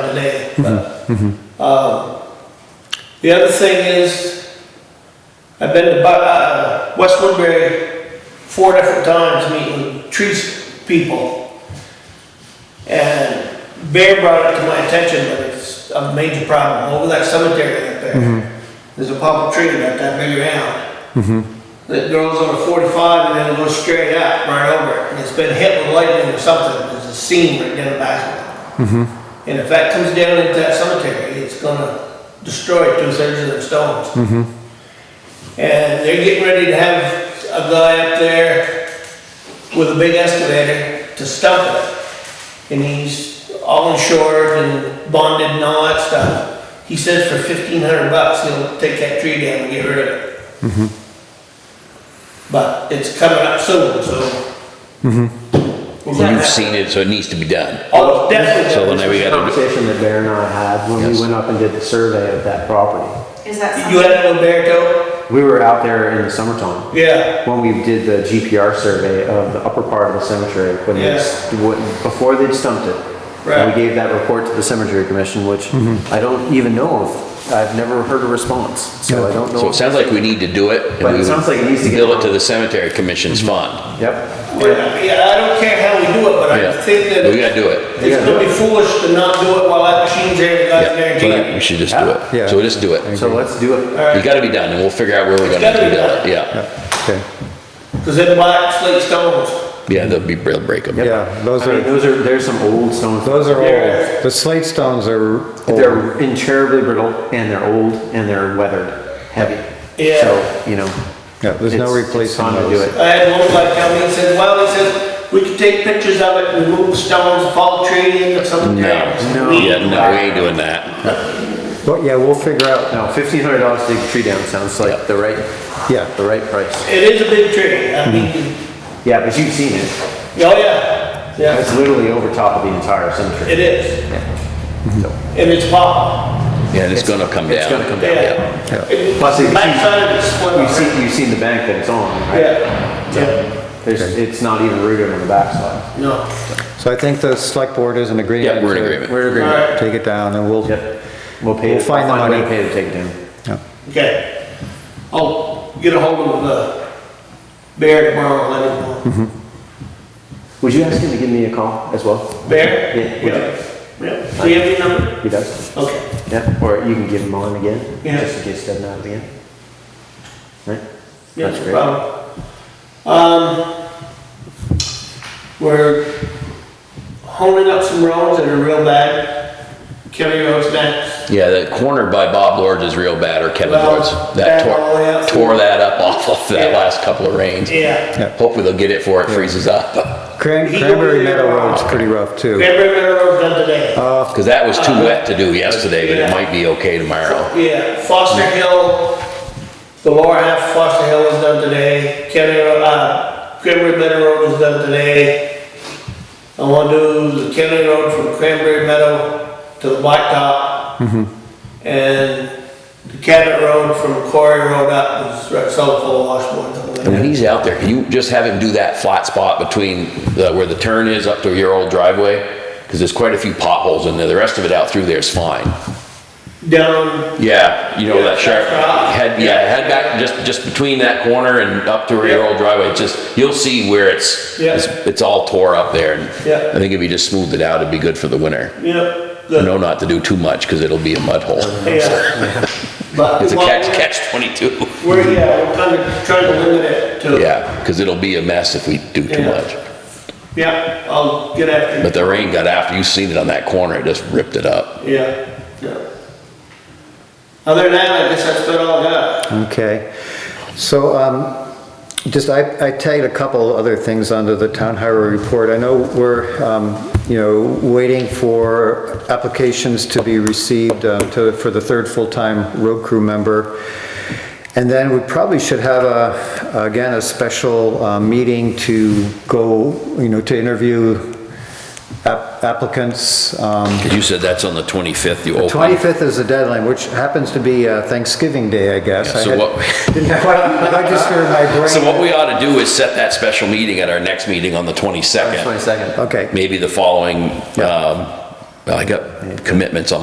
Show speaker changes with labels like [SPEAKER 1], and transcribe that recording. [SPEAKER 1] another day. But, um, The other thing is, I've been to Bu- uh, West Woodbury four different times meeting tree people. And Bear brought it to my attention that it's a major problem over that cemetery up there. There's a pop tree about that big around that goes on a 45 and then it goes straight up right over it. And it's been hit with lightning or something. There's a seam right down the back of it. And if that comes down into that cemetery, it's gonna destroy two thirds of them stones. And they're getting ready to have a guy up there with a big excavator to stump it. And he's all insured and bonded and all that stuff. He says for 1,500 bucks, he'll take that tree down and get rid of it. But it's coming up soon, so.
[SPEAKER 2] Well, You've seen it, so it needs to be done.
[SPEAKER 1] Oh, definitely.
[SPEAKER 2] So whenever you
[SPEAKER 3] This was a
[SPEAKER 2] gotta do,
[SPEAKER 3] Conversation that Bear and I had when
[SPEAKER 2] Yes.
[SPEAKER 3] we went up and did the survey of that property.
[SPEAKER 4] Is that
[SPEAKER 1] You
[SPEAKER 4] something?
[SPEAKER 1] had it with Berto?
[SPEAKER 3] We were out there in the summertime
[SPEAKER 1] Yeah,
[SPEAKER 3] when we did the GPR survey of the upper part of the cemetery, when they,
[SPEAKER 1] Yes.
[SPEAKER 3] when- before they'd stumped it. And
[SPEAKER 1] Right.
[SPEAKER 3] we gave that report to the cemetery commission, which I don't even know of. I've never heard a response, so I don't know.
[SPEAKER 2] so it sounds like we need to do it. and
[SPEAKER 3] But it
[SPEAKER 2] we would
[SPEAKER 3] sounds like it needs to get
[SPEAKER 2] Bill it
[SPEAKER 3] done.
[SPEAKER 2] to the cemetery commission's
[SPEAKER 3] Mm-hmm.
[SPEAKER 2] fund.
[SPEAKER 3] Yep,
[SPEAKER 1] yeah, yeah, I don't care how we do it, but I
[SPEAKER 2] Yeah,
[SPEAKER 1] think that
[SPEAKER 2] we gotta do it.
[SPEAKER 1] it's gonna be foolish to not do it while that machine's there, the guy's there.
[SPEAKER 2] Yeah,
[SPEAKER 1] doing
[SPEAKER 2] we
[SPEAKER 1] it.
[SPEAKER 2] should just do
[SPEAKER 5] Yeah.
[SPEAKER 2] it. So just do it.
[SPEAKER 3] so let's do it.
[SPEAKER 2] You gotta be done, and we'll figure out where we're gonna
[SPEAKER 1] gotta
[SPEAKER 2] do
[SPEAKER 1] be
[SPEAKER 2] that,
[SPEAKER 1] done.
[SPEAKER 2] yeah.
[SPEAKER 5] Okay,
[SPEAKER 1] Cause they're black slate stones.
[SPEAKER 2] Yeah, they'll be, they'll break them.
[SPEAKER 5] yeah, those
[SPEAKER 3] I mean,
[SPEAKER 5] are,
[SPEAKER 3] those are, there's some old stones.
[SPEAKER 5] those are
[SPEAKER 1] Yeah.
[SPEAKER 5] old. The slate stones are old.
[SPEAKER 3] They're incurably brittle and they're old and they're weathered, heavy.
[SPEAKER 1] Yeah.
[SPEAKER 3] So, you know,
[SPEAKER 5] Yeah, there's no
[SPEAKER 3] it's- it's
[SPEAKER 5] replacing
[SPEAKER 3] time to do
[SPEAKER 5] those.
[SPEAKER 3] it.
[SPEAKER 1] I had one guy tell me, he said, well, he said, we could take pictures of it, remove the stones, fall tree, and something.
[SPEAKER 2] No,
[SPEAKER 3] No.
[SPEAKER 2] yeah, no, we ain't doing that.
[SPEAKER 5] But yeah, we'll figure out,
[SPEAKER 3] No, fifteen hundred dollars to dig a tree down sounds like the right,
[SPEAKER 5] yeah.
[SPEAKER 3] the right price.
[SPEAKER 1] It is a big tree,
[SPEAKER 2] Mm-hmm.
[SPEAKER 1] I mean,
[SPEAKER 3] Yeah, but you've seen it.
[SPEAKER 1] oh yeah, yeah,
[SPEAKER 3] It's literally over top of the entire cemetery.
[SPEAKER 1] it is.
[SPEAKER 3] So,
[SPEAKER 1] And it's pop,
[SPEAKER 2] Yeah, and it's gonna come down.
[SPEAKER 3] It's gonna come down.
[SPEAKER 1] yeah.
[SPEAKER 5] Yeah.
[SPEAKER 1] It-
[SPEAKER 3] Plus, if you-
[SPEAKER 1] Backside of it's split.
[SPEAKER 3] You've seen, you've seen the bank that it's on, right?
[SPEAKER 1] Yeah, yeah,
[SPEAKER 3] There's, it's not even rooted on the backside.
[SPEAKER 1] no.
[SPEAKER 5] So I think the select board is in agreement.
[SPEAKER 2] Yeah, we're in
[SPEAKER 5] to
[SPEAKER 2] agreement.
[SPEAKER 3] We're
[SPEAKER 1] All
[SPEAKER 3] agreed.
[SPEAKER 1] right,
[SPEAKER 5] Take it down and we'll,
[SPEAKER 3] Yep. We'll pay.
[SPEAKER 5] We'll
[SPEAKER 3] it-
[SPEAKER 5] find the
[SPEAKER 3] I'll a
[SPEAKER 5] money.
[SPEAKER 3] way to Pay to take it down.
[SPEAKER 5] yeah.
[SPEAKER 1] okay. I'll get a hold of the Bear tomorrow, let him know.
[SPEAKER 3] Would you ask him to give me a call as well?
[SPEAKER 1] Bear?
[SPEAKER 3] Yeah, would you?
[SPEAKER 1] Yeah, do you have any number?
[SPEAKER 3] He does?
[SPEAKER 1] Okay,
[SPEAKER 3] Yeah, or you can give him mine again,
[SPEAKER 1] Yeah.
[SPEAKER 3] just in case it doesn't happen again. Right?
[SPEAKER 1] yeah, no
[SPEAKER 3] That's great.
[SPEAKER 1] problem. Um, we're honing up some roads that are real bad. Kelly Road's next.
[SPEAKER 2] Yeah, that corner by Bob Lords is real bad, or Kevin
[SPEAKER 1] Well,
[SPEAKER 2] Lords.
[SPEAKER 1] bad
[SPEAKER 2] That
[SPEAKER 1] all the way up.
[SPEAKER 2] tore, tore that up off of that
[SPEAKER 1] Yeah.
[SPEAKER 2] last couple of rains.
[SPEAKER 1] Yeah.
[SPEAKER 2] Hopefully they'll get it before it freezes up,
[SPEAKER 5] Cran-
[SPEAKER 1] He
[SPEAKER 5] Cranberry
[SPEAKER 1] don't really
[SPEAKER 5] Meadow
[SPEAKER 1] know.
[SPEAKER 5] Road's pretty rough too.
[SPEAKER 1] Cranberry Meadow Road's done today.
[SPEAKER 5] Uh,
[SPEAKER 2] because that was too wet to do yesterday, but it
[SPEAKER 1] Yeah.
[SPEAKER 2] might be okay tomorrow.
[SPEAKER 1] Yeah, Foster Hill, the lower half of Foster Hill was done today. Kelly Road, uh, Cranberry Meadow Road was done today. I want to do the Kelly Road from Cranberry Meadow to the Blacktop.
[SPEAKER 2] Mm-hmm.
[SPEAKER 1] And the Cabot Road from Quarry Road up is right south of Washboard. something
[SPEAKER 2] And
[SPEAKER 1] like
[SPEAKER 2] when
[SPEAKER 1] that.
[SPEAKER 2] he's out there, can you just have him do that flat spot between the, where the turn is up to your old driveway? Because there's quite a few potholes in there. The rest of it out through there is fine.
[SPEAKER 1] Down,
[SPEAKER 2] Yeah, you know, that sharp,
[SPEAKER 1] Yeah, that's right.
[SPEAKER 2] head, yeah, head back, just, just between that corner and up to your
[SPEAKER 1] Yeah.
[SPEAKER 2] old driveway, just, you'll see where it's,
[SPEAKER 1] Yeah.
[SPEAKER 2] it's, it's all tore up there. and
[SPEAKER 1] Yeah.
[SPEAKER 2] I think if you just smoothed it out, it'd be good for the winter.
[SPEAKER 1] yep.
[SPEAKER 2] You
[SPEAKER 1] the-
[SPEAKER 2] know not to do too much, because it'll be a mud hole.
[SPEAKER 1] yeah. But
[SPEAKER 2] It's a
[SPEAKER 1] what
[SPEAKER 2] catch,
[SPEAKER 1] we're-
[SPEAKER 2] catch twenty-two.
[SPEAKER 1] We're, yeah, we're kind of trying to limit it to.
[SPEAKER 2] Yeah, because it'll be a mess if we do too
[SPEAKER 1] Yeah.
[SPEAKER 2] much.
[SPEAKER 1] Yeah, I'll get after you.
[SPEAKER 2] But the rain got after, you seen it on that corner, it just ripped it up.
[SPEAKER 1] Yeah, yeah. Other than that, I guess that's about all I got.
[SPEAKER 5] Okay, so, um, just, I, I tagged a couple other things onto the town highway report. I know we're, um, you know, waiting for applications to be received, uh, to, for the third full-time road crew member. And then we probably should have a, again, a special, uh, meeting to go, you know, to interview app- applicants, um,
[SPEAKER 2] 'Cause you said that's on the twenty-fifth, you opened.
[SPEAKER 5] 25th is the deadline, which happens to be uh, Thanksgiving Day, I guess.
[SPEAKER 2] Yeah, so
[SPEAKER 5] I had-
[SPEAKER 2] what-
[SPEAKER 5] Didn't quite, I just heard my brain.
[SPEAKER 2] So what we ought to do is set that special meeting at our next meeting on the twenty-second.
[SPEAKER 3] Twenty-second.
[SPEAKER 5] Okay,
[SPEAKER 2] maybe the following,
[SPEAKER 5] Yeah.
[SPEAKER 2] um, I got commitments on